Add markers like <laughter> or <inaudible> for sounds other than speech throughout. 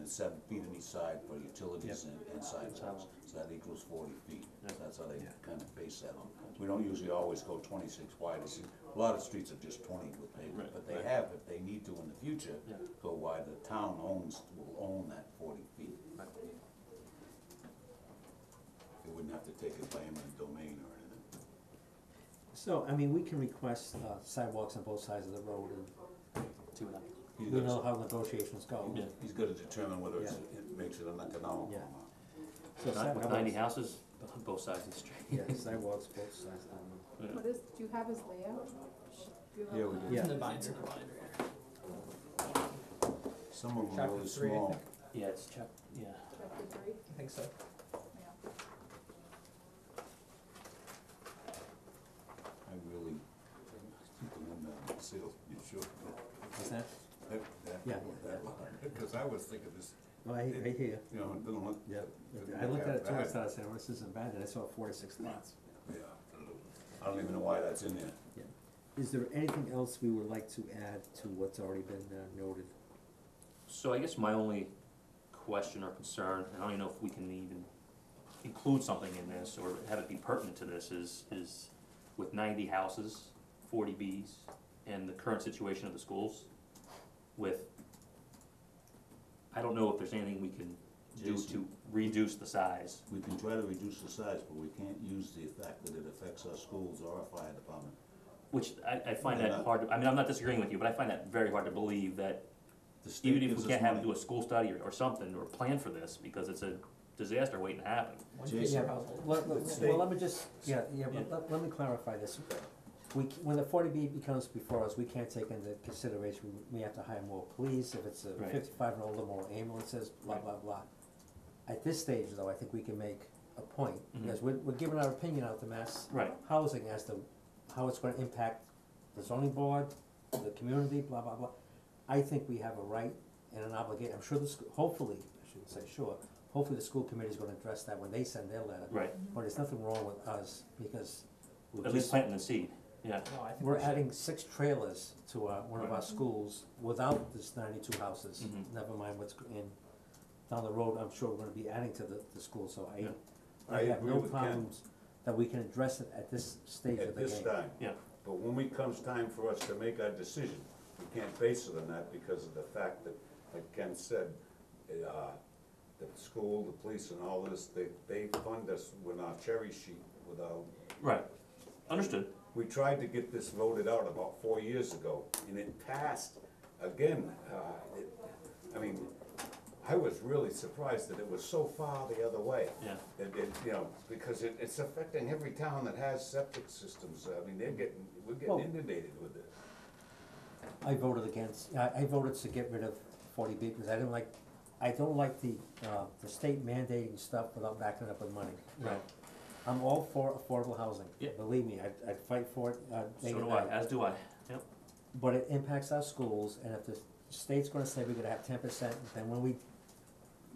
it's seven feet on each side for utilities and, and sidewalks, Sidewalks. so that equals forty feet. Yeah. That's how they Yeah. kind of base that on. We don't usually always go twenty-six wide, It's- a lot of streets are just twenty with pavement, Right, but they right. have, if they need to in the future, Yeah. go wide, the town owns, will own that forty feet. Right. They wouldn't have to take it by eminent domain or anything. So, I mean, we can request uh, sidewalks on both sides of the road and See what happens. He's we gotta- know how negotiations go. Yeah. He's gotta determine whether it's, it makes it uneconomical or Yeah. not. Not So with sidewalks- ninety houses on both sides of the street. <laughs> <laughs> Yeah, sidewalks both sides of the road. What is, do you have his layout? Do you have Yeah, we that? do. Yeah. It's in the binder. It's in the binder. Some of them are Chapter really three, I small. think. Yeah, it's chap, yeah. Chapter three, I think so. yeah. I really, the one that sealed, you sure? Is that, That, that, Yeah. that because I was thinking this, well, I, I hear you. you know, it didn't look. Yeah. didn't I look looked that at it too, I bad. started saying, well, this isn't bad, and I saw four to six lots. Yeah, I don't even know why that's in there. Is there anything else we would like to add to what's already been uh, noted? So I guess my only question or concern, and I don't even know if we can even include something in this or have it be pertinent to this, is, is with ninety houses, forty Bs, and the current situation of the schools with, I don't know if there's anything we can do to Jason. reduce the size. We can try to reduce the size, but we can't use the fact that it affects our schools or our fire department. Which I, I find Yeah. that hard, to- I mean, I'm not disagreeing with you, but I find that very hard to believe that The state even if gives we us can't have, money. do a school study or, or something, or plan for this, because it's a disaster waiting to happen. One kid Jason. per household. Let, let- Let's well, see. let me just, yeah, yeah, Yeah. but let, let me clarify this. We, c- when the forty B becomes before us, we can't take into consideration, we- we have to hire more police, if it's a Right. fifty-five and older, more ambulances, blah, Right. blah, blah. At this stage, though, I think we can make a point, Mhm. because we're, we're giving our opinion out to mass Right. housing as to how it's gonna impact the zoning board, the community, blah, blah, blah. I think we have a right and an obligation, I'm sure the school, hopefully, I shouldn't say sure, hopefully the school committee's gonna address that when they send their letter. Right, But there's nothing wrong with us, because we're at least just, planting the seed, yeah, No, I think we're we should- adding six trailers to our, one of our schools without this ninety-two houses. Mhm. Never mind what's in, down the road, I'm sure we're gonna be adding to the, the school, so Yeah. I, I I have agree no with Ken. problems that we can address it at this stage of At the game. this time. yeah, But when we comes time for us to make our decision, we can't base it on that because of the fact that, like Ken said, uh, the school, the police and all this, they, they fund us with our cherry sheet, with our, right, understood, we tried to get this voted out about four years ago and it passed again. uh, it- I mean, I was really surprised that it was so far the other way. Yeah. It, it, you know, because it, it's affecting every town that has septic systems. I mean, they're getting, we're Well- getting inundated with it. I voted against, I, I voted to get rid of forty B because I didn't like, I don't like the, uh, the state mandating stuff without backing it up with money. Right. I'm all for affordable housing. Yeah. Believe me, I'd, I'd fight for it, uh, day so and do I, night. as do I, yep, But it impacts our schools, and if the state's gonna say we're gonna have ten percent, then when we,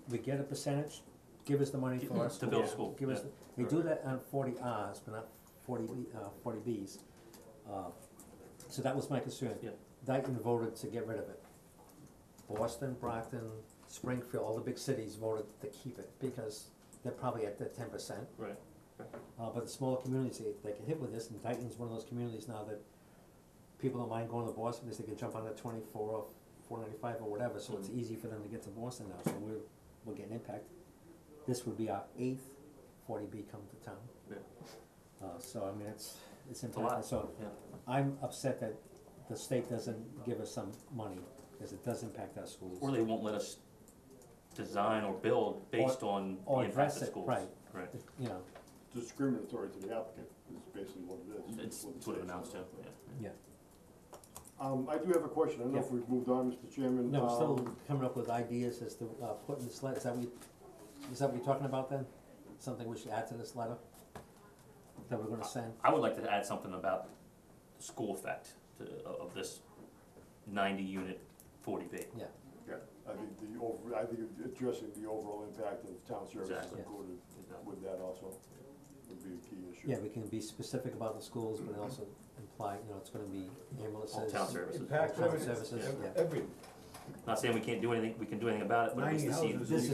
we get a percentage, give us the money for our To schools. build a school, Give us, yeah. the- they do that on forty Rs, but not forty B, uh, forty Bs. Uh, so that was my concern. Yeah. Dayton voted to get rid of it. Boston, Brockton, Springfield, all the big cities voted to keep it, because they're probably at the ten percent. right, Uh, but the smaller communities, they, they get hit with this, and Dayton's one of those communities now that people don't mind going to Boston, because they can jump on the twenty-four or four ninety-five or whatever, so it's Mhm. easy for them to get to Boston now, so we're, we're getting impacted. This would be our eighth forty B come to town, yeah, uh, so I mean, it's, it's a lot. impactful, so yeah, I'm upset that the state doesn't give us some money, because it does impact our schools. or they won't let us design or build based on the or impact address of it, schools. right. Right, You know, discriminatory to the applicant is basically what it is. it's, what it's it what it says. amounts to, yeah, yeah, Um, I do have a question, I don't know if we've moved on, Mr. Chairman. no, we're still Um, coming up with ideas as to, uh, putting this letter, is that we, is that what you're talking about then? Something we should add to this letter? That we're gonna send? I would like to add something about the school effect to, of this ninety unit forty B. Yeah, yeah, I think the over, I think addressing the overall impact of town services Exactly. included with that also would be a key issue. yeah, we can be specific about the schools, but also imply, you know, it's gonna be ambulances. All town services, Impact Impact services, services, yeah. every, Not saying we can't do anything, we can do anything about it, but at Ninety least the houses. seed- you This